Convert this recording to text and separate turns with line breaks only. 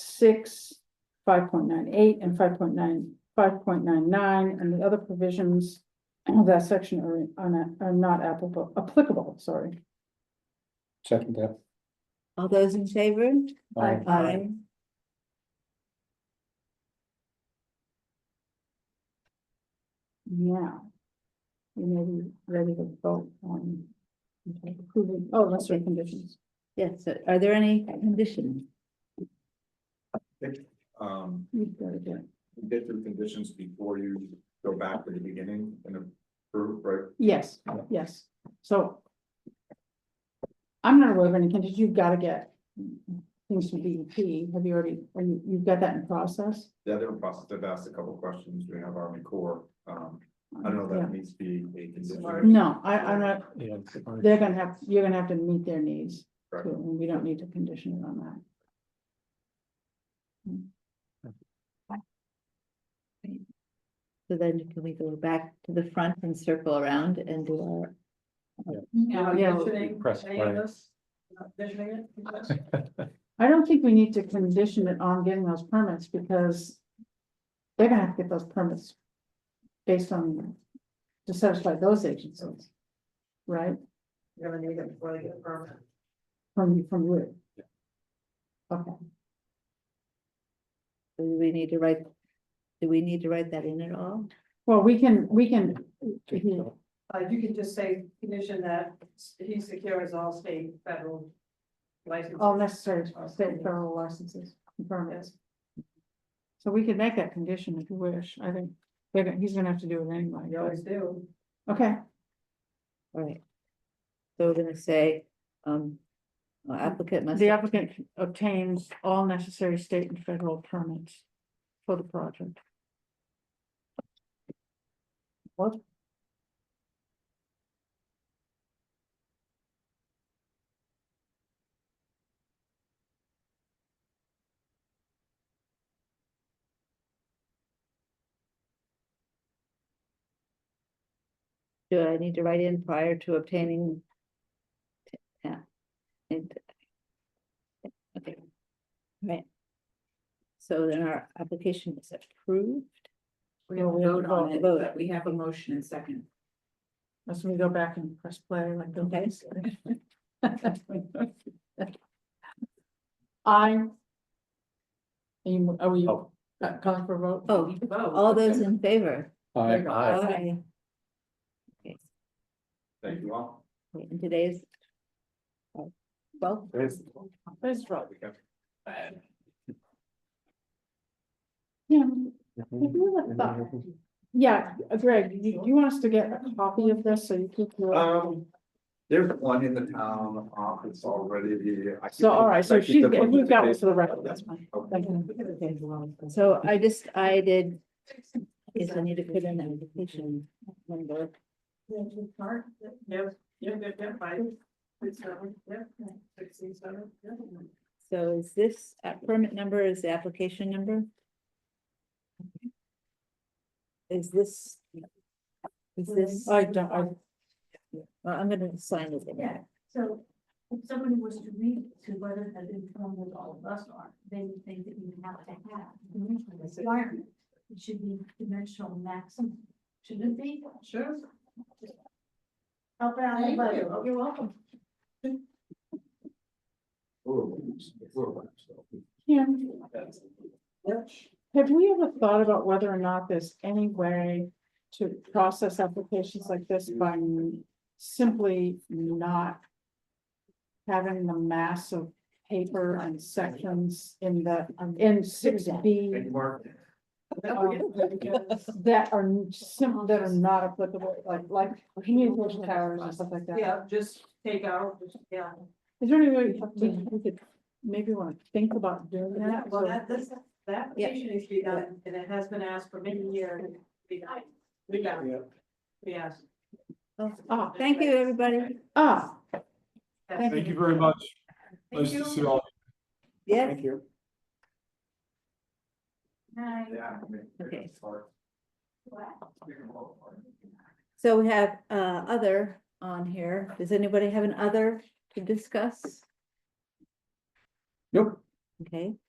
six, five point nine eight and five point nine, five point nine nine, and the other provisions of that section are, are not, are not applicable, applicable, sorry.
Second that.
All those in favor?
Aye.
Aye.
Now. We may be ready to vote on approving, oh, that's right, conditions.
Yes, so are there any conditions?
Um,
We've got to do it.
you get through conditions before you go back to the beginning and approve, right?
Yes, yes, so. I'm not aware of any conditions, you've got to get things from DEP, have you already, are you, you've got that in process?
The other process, I've asked a couple questions, we have Army Corps, um, I don't know if
Yeah.
that needs to be a condition.
No, I, I'm not,
Yeah.
they're gonna have, you're gonna have to meet their needs, too,
Right.
and we don't need to condition it on that.
So then can we go back to the front and circle around and do our,
Now, yesterday,
Press play.
Uh,
I don't think we need to condition it on getting those permits, because they're gonna have to get those permits based on, to satisfy those agencies, right?
You're gonna need it before they get a permit.
From, from you. Okay,
do we need to write? Do we need to write that in at all?
well, we can, we can, Mhm.
Uh, you can just say condition that he secures all state federal licenses.
all necessary state and federal licenses, and permits. So we could make that condition if you wish, I think, they're gonna- he's gonna have to do it anyway,
You always do.
but- okay,
All right. So we're gonna say, um, applicant must.
the applicant obtains all necessary state and federal permits for the project.
Do I need to write in prior to obtaining? Yeah. And- Okay. Right. So then our application is approved.
We have to vote on it,
Vote.
we have a motion and second.
That's when we go back and press play like those. I. Are you, are we
Oh.
uh, calling for a vote?
Oh, all those in favor?
Aye. Aye.
Aye. Okay,
Thank you all.
and today's. uh, Well,
That's right.
We have-
Yeah, if you would have thought- yeah, uh, Greg, you, you want us to get a copy of this so you keep your,
Um, there's one in the town office already. I keep-
so, all right, so
I keep
she's,
the Oh.
get-
one
we've got it
today.
for the record, that's fine. Thank you.
so I just, I did. Is I need to put in the application. number.
Yep, yep, yep, yep, five, six, seven, yep, sixteen, seven, yep.
So is this app- permit number is the application number? Is this? Is this,
I don't, I,
well, I'm gonna sign it.
Yeah, so if somebody was to read to whether that informed what all of us are, they would think that you have to have a dimensional requirement. It should be dimensional maximum, shouldn't it be?
Sure.
Help out
Thank
anybody,
you.
you're welcome.
Ooh, ooh, so.
Kim,
Yep.
Have we ever thought about whether or not there's any way to process applications like this by n- simply not having the mass of paper and sections in the, in six B
Thank you, Mark.
that are simple, that are not applicable, like, like communication towers and stuff like that?
Yeah, just take out, just, yeah.
Is there any way we we could maybe want to think about doing
Yeah,
that?
well,
so-
that, this, that
Yeah.
application needs to be done, and it has been asked for many years. We got it. We got it. We asked.
Ah,
Thank you, everybody.
ah,
Thank
you very much.
Thank
Nice to see you all.
Yes,
Thank you.
Hi.
Yeah. I mean,
Okay.
it's hard.
Wow.
We can all-
so we have uh other on here. Does anybody have an other to discuss?
Nope.
Okay,